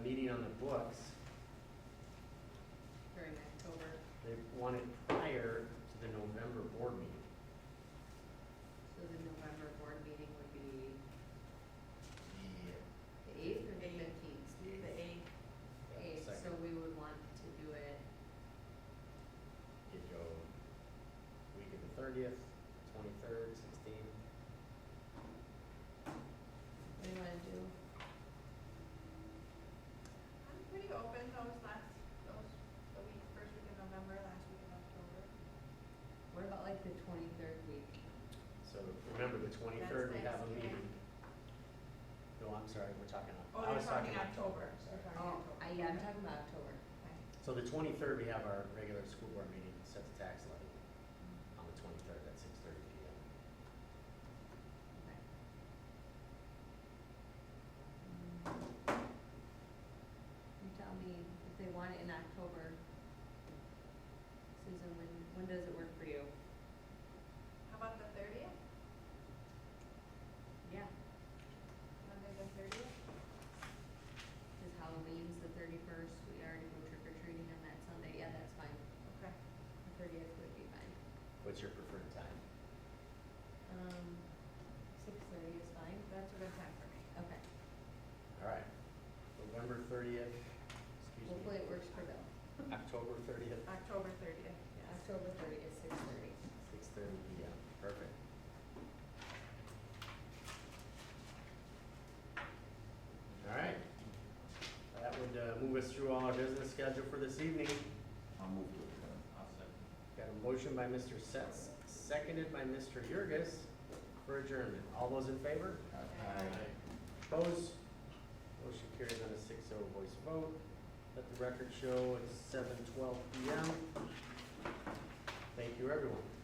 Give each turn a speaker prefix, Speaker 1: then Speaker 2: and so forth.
Speaker 1: on the books,
Speaker 2: During October,
Speaker 1: they want it prior to the November board meeting.
Speaker 2: so the November board meeting would be
Speaker 1: Yeah.
Speaker 2: the eighth or the
Speaker 3: Eighth.
Speaker 2: fifteenth?
Speaker 3: The eighth,
Speaker 2: Eighth, so
Speaker 1: Second,
Speaker 2: we would want to do it,
Speaker 1: you go week of the thirtieth, twenty-third, sixteenth.
Speaker 2: what do you wanna do?
Speaker 3: I'm pretty open those last, those, the week, first week of November, last week of October. Oh,
Speaker 2: What about like the twenty-third week?
Speaker 1: So remember, the twenty-third, we have a
Speaker 3: Thanksgiving.
Speaker 1: meeting. No, I'm sorry, we're talking, Oc-
Speaker 3: Oh,
Speaker 1: I
Speaker 3: you're
Speaker 1: was talking
Speaker 3: talking
Speaker 1: October,
Speaker 3: October.
Speaker 1: sorry.
Speaker 3: You're talking-
Speaker 2: Oh, I, yeah, I'm talking about October.
Speaker 3: Okay.
Speaker 1: So the twenty-third, we have our regular school board meeting, set the tax levy on the twenty-third at six thirty P M.
Speaker 2: Okay. You tell me if they want it in October. Susan, when, when does it work for you?
Speaker 3: How about the thirtieth,
Speaker 2: Yeah.
Speaker 3: Monday the thirtieth?
Speaker 2: Cause Halloween's the thirty-first, we already go trick or treating on that Sunday, yeah, that's fine,
Speaker 3: Okay.
Speaker 2: the thirtieth would be fine.
Speaker 1: What's your preferred time?
Speaker 2: Um, six thirty is fine,
Speaker 3: That's a good time for me.
Speaker 2: okay,
Speaker 1: All right, November thirtieth, excuse me,
Speaker 2: hopefully it works for Bill.
Speaker 1: October thirtieth,
Speaker 3: October thirtieth, yes.
Speaker 2: October thirty is six thirty.
Speaker 1: six thirty P M, perfect. All right, that would uh, move us through all our business schedule for this evening.
Speaker 4: I'll move to adjourn. I'll second.
Speaker 1: Got a motion by Mr. Sets, seconded by Mr. Yurgis for adjournment. All those in favor?
Speaker 3: Aye.
Speaker 1: Opposed? Motion carries on a 6-0 voice vote. Let the record show it's seven twelve PM. Thank you, everyone.